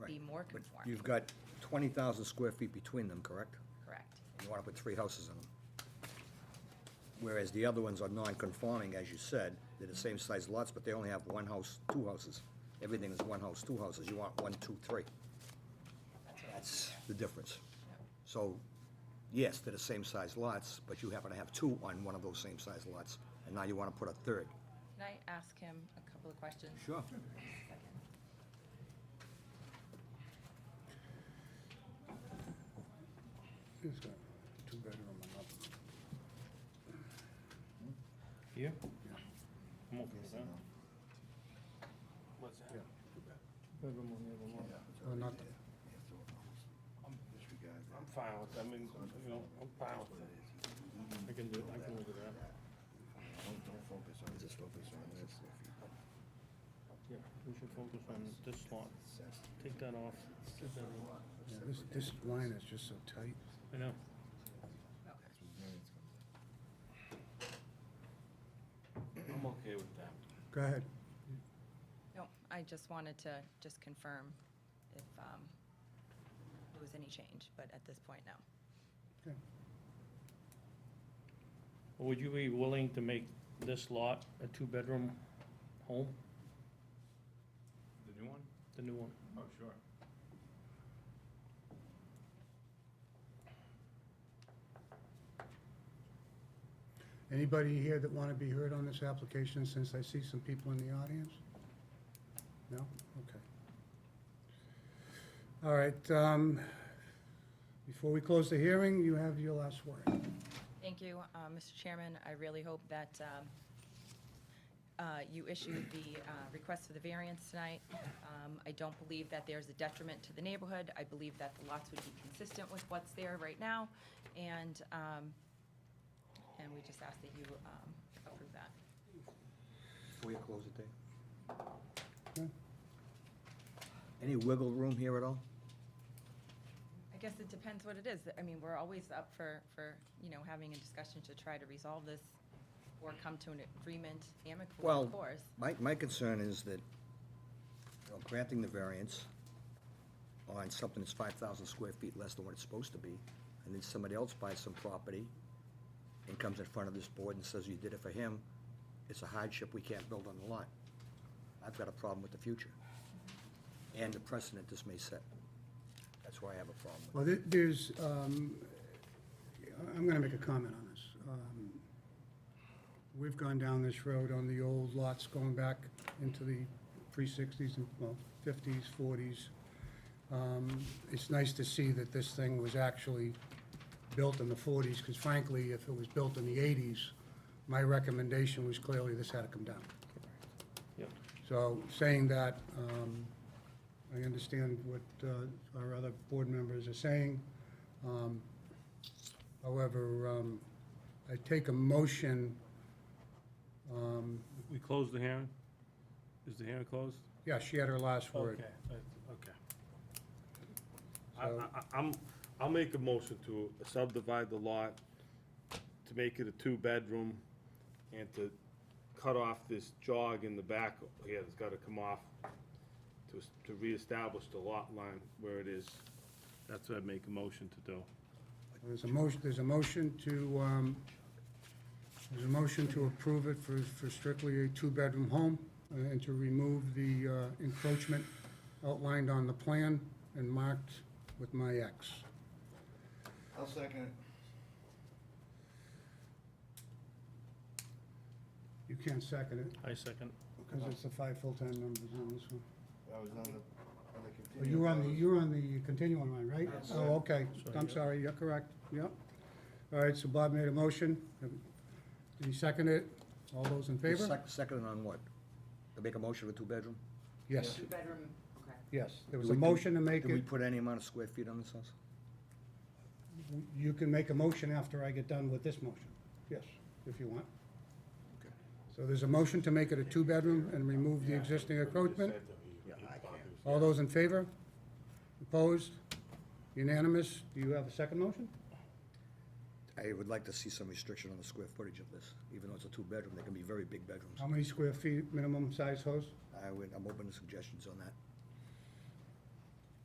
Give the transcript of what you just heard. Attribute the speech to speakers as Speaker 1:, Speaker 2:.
Speaker 1: more
Speaker 2: But
Speaker 1: conforming,
Speaker 2: you've got twenty thousand square feet between them, correct?
Speaker 1: correct?
Speaker 2: You wanna put three houses in them. Whereas the other ones are non-conforming, as you said, they're the same size lots, but they only have one house, two houses. Everything is one house, two houses, you want one, two, three. That's the difference. So, yes, they're the same size lots, but you happen to have two on one of those same size lots, and now you wanna put a third.
Speaker 1: Can I ask him a couple of questions?
Speaker 2: Sure.
Speaker 3: He's got two bedroom and up.
Speaker 4: Yeah? I'm okay with that.
Speaker 3: Oh, not the-
Speaker 4: I'm fine with, I mean, you know, I'm fine with it. I can do it, I can live with that. Yeah, we should focus on this lot. Take that off.
Speaker 3: yeah, This, this line is just so tight.
Speaker 4: I know. I'm okay with that.
Speaker 3: Go ahead.
Speaker 1: No, I just wanted to just confirm if um, there was any change, but at this point, no.
Speaker 3: Okay.
Speaker 4: Would you be willing to make this lot a two-bedroom home,
Speaker 5: The new one?
Speaker 4: the new one?
Speaker 5: Oh, sure.
Speaker 3: Anybody here that want to be heard on this application, since I see some people in the audience? No? Okay. All right, um, before we close the hearing, you have your last word.
Speaker 1: Thank you, uh, Mr. Chairman. I really hope that um, uh, you issue the uh, request for the variance tonight. Um, I don't believe that there's a detriment to the neighborhood. I believe that the lots would be consistent with what's there right now, and, um, and we just ask that you um, approve that.
Speaker 2: Before you close it, Dave?
Speaker 3: Okay.
Speaker 2: Any wiggle room here at all?
Speaker 1: I guess it depends what it is. I mean, we're always up for, for, you know, having a discussion to try to resolve this or come to an agreement amicably,
Speaker 2: Well,
Speaker 1: of course.
Speaker 2: my, my concern is that, you know, granting the variance on something that's five thousand square feet less than what it's supposed to be, and then somebody else buys some property and comes in front of this board and says, you did it for him, it's a hardship, we can't build on the lot. I've got a problem with the future, and the precedent this may set. That's why I have a problem with
Speaker 3: Well, there- there's, um, I'm going to make a comment on this. Um, We've gone down this road on the old lots going back into the pre-sixties and, well, fifties, forties. Um, It's nice to see that this thing was actually built in the forties, because frankly, if it was built in the eighties, my recommendation was clearly this had to come down.
Speaker 4: Yep.
Speaker 3: So saying that, um, I understand what uh, our other board members are saying. Um, However, um, I take a motion, um,
Speaker 4: We close the hearing? Is the hearing closed?
Speaker 3: yeah, she had her last word.
Speaker 4: Okay, uh, okay. I,
Speaker 3: So-
Speaker 4: I, I- I'm, I'll make a motion to subdivide the lot, to make it a two-bedroom, and to cut off this jog in the back, yeah, it's gotta come off, to, s- to reestablish the lot line where it is. That's what I make a motion to do.
Speaker 3: There's a motion, there's a motion to, um, there's a motion to approve it for for strictly a two-bedroom home uh, and to remove the uh, encroachment outlined on the plan and marked with my X.
Speaker 6: I'll second it.
Speaker 3: You can't second it.
Speaker 4: I second.
Speaker 3: Because it's the five full-time members on this one.
Speaker 6: I was on the, on the
Speaker 3: Oh,
Speaker 6: continuing.
Speaker 3: You're on the, you're on the continuing one, right? Oh, okay, I'm sorry, you're correct, yep. All right, so Bob made a motion, did he second it? All those in
Speaker 2: it.
Speaker 3: favor?
Speaker 2: Sec- Second on what? To make a motion for two-bedroom?
Speaker 3: Yes,
Speaker 1: Two-bedroom, okay.
Speaker 3: yes, there was
Speaker 2: Do
Speaker 3: a
Speaker 2: we- do-
Speaker 3: motion to make
Speaker 2: Do we
Speaker 3: it,
Speaker 2: put any amount of square feet on this house?
Speaker 3: you can make a motion after I get done with this motion, yes, if you want. So there's a motion to make it a two-bedroom and remove the existing encroachment? All those in favor? Opposed? Unanimous? Do you have a second motion?
Speaker 2: I would like to see some restriction on the square footage of this, even though it's a
Speaker 3: Oh.
Speaker 2: two-bedroom, they can be very big bedrooms.
Speaker 3: How many square feet minimum size house?
Speaker 2: I would, I'm open to suggestions on that.